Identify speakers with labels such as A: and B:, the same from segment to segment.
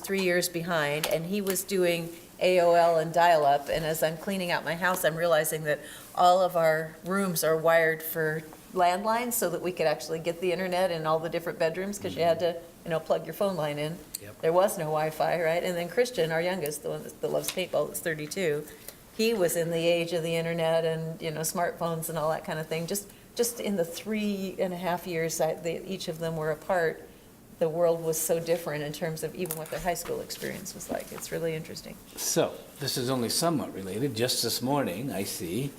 A: three years behind, and he was doing AOL and dial-up, and as I'm cleaning out my house, I'm realizing that all of our rooms are wired for landlines so that we could actually get the internet in all the different bedrooms, because you had to, you know, plug your phone line in.
B: Yep.
A: There was no Wi-Fi, right? And then Christian, our youngest, the one that that loves paintball, that's 32, he was in the age of the internet and, you know, smartphones and all that kind of thing. Just, just in the three and a half years that they, each of them were apart, the world was so different in terms of even what their high school experience was like. It's really interesting.
B: So, this is only somewhat related. Just this morning, I see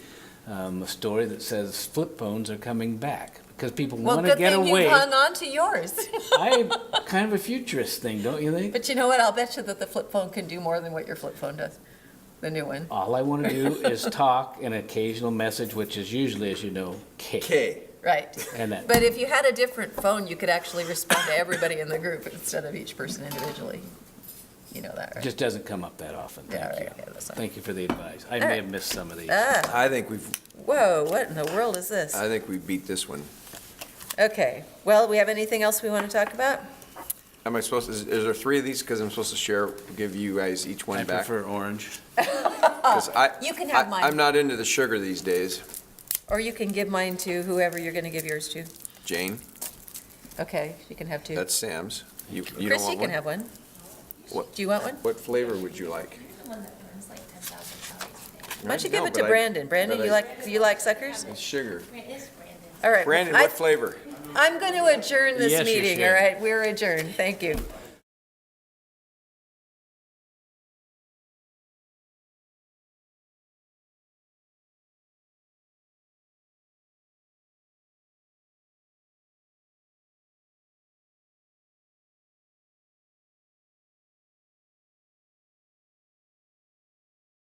B: um, a story that says flip phones are coming back because people
A: Well,
B: want to
A: good
B: get
A: thing
B: away.
A: you hung on to yours.
B: I kind of a futurist thing, don't you think?
A: But you know what? I'll bet you that the flip phone can do more than what your flip phone does, the new one.
B: All I want to do is talk an occasional message, which is usually, as you know, K.
C: K.
A: Right.
B: And that.
A: But if you had a different phone, you could actually respond to everybody in the group instead of each person individually. You know that, right?
B: Just doesn't come up that often.
A: Yeah,
B: Thank
A: right,
B: you.
A: yeah, that's fine.
B: Thank you for the advice. I
A: right.
B: may have missed some of these.
A: Ah,
C: I think we've,
A: whoa, what in the world is this?
B: Uh,
C: I think we beat this one.
A: Okay, well, we have anything else we want to talk about?
C: Am I supposed, is, is there three of these? Because I'm supposed to share, give you guys each
B: I
C: one back?
B: prefer orange.
C: 'Cause I-
A: Oh, You can have
C: I-
A: mine.
C: I'm not into the sugar these days.
A: Or you can give mine to whoever you're going to give yours to.
C: Jane,
A: Okay, you can have two.
C: that's Sam's. You, you don't
A: Chris, you can
C: want one?
A: have one.
C: What?
A: Do you want one?
C: What flavor would you like?
D: one that burns like ten thousand calories a day.
A: Why don't you
C: No,
A: give it to
C: but I-
A: Brandon? Brandon,
C: but
A: you
C: I-
A: like, you like suckers?
C: It's sugar.
D: It is Brandon.
A: All right.
C: Brandon,
A: I-
C: what flavor?
A: I'm going to adjourn this
B: Yes, you
A: meeting, all
B: should.
A: right? We're adjourned, thank you.